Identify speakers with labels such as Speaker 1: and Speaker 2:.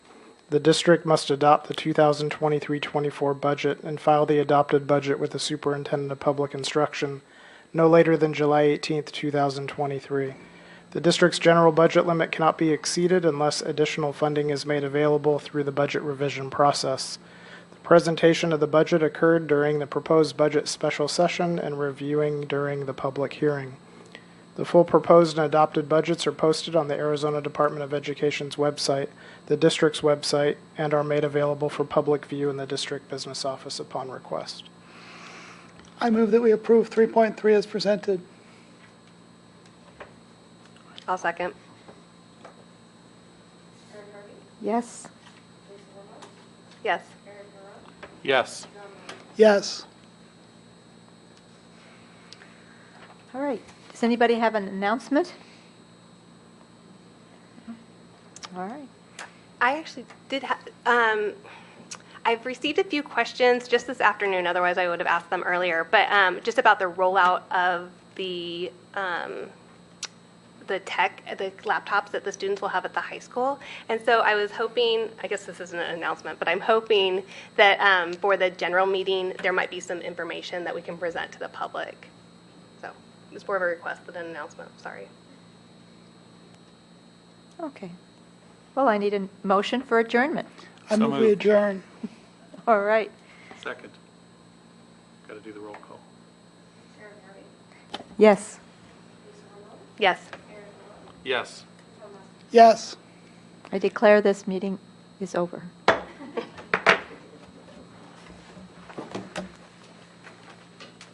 Speaker 1: The district must adopt the 2023-24 budget and file the adopted budget with the superintendent of public instruction no later than July 18, 2023. The district's general budget limit cannot be exceeded unless additional funding is made available through the budget revision process. The presentation of the budget occurred during the proposed budget special session and reviewing during the public hearing. The full proposed and adopted budgets are posted on the Arizona Department of Education's website, the district's website, and are made available for public view in the district business office upon request.
Speaker 2: I move that we approve 3.3 as presented.
Speaker 3: I'll second.
Speaker 4: Yes.
Speaker 3: Yes.
Speaker 5: Yes.
Speaker 2: Yes.
Speaker 4: All right. Does anybody have an announcement? All right.
Speaker 3: I actually did, ha- um, I've received a few questions just this afternoon, otherwise I would have asked them earlier, but um, just about the rollout of the, um, the tech, the laptops that the students will have at the high school. And so I was hoping, I guess this isn't an announcement, but I'm hoping that um, for the general meeting, there might be some information that we can present to the public. So it's more of a request than an announcement, sorry.
Speaker 4: Okay. Well, I need a motion for adjournment.
Speaker 2: I
Speaker 5: So
Speaker 2: move we
Speaker 5: moved.
Speaker 2: adjourn.
Speaker 4: All right.
Speaker 5: Second. Got to do the roll call.
Speaker 4: Yes.
Speaker 3: Yes.
Speaker 5: Yes.
Speaker 2: Yes.
Speaker 4: I declare this meeting is over.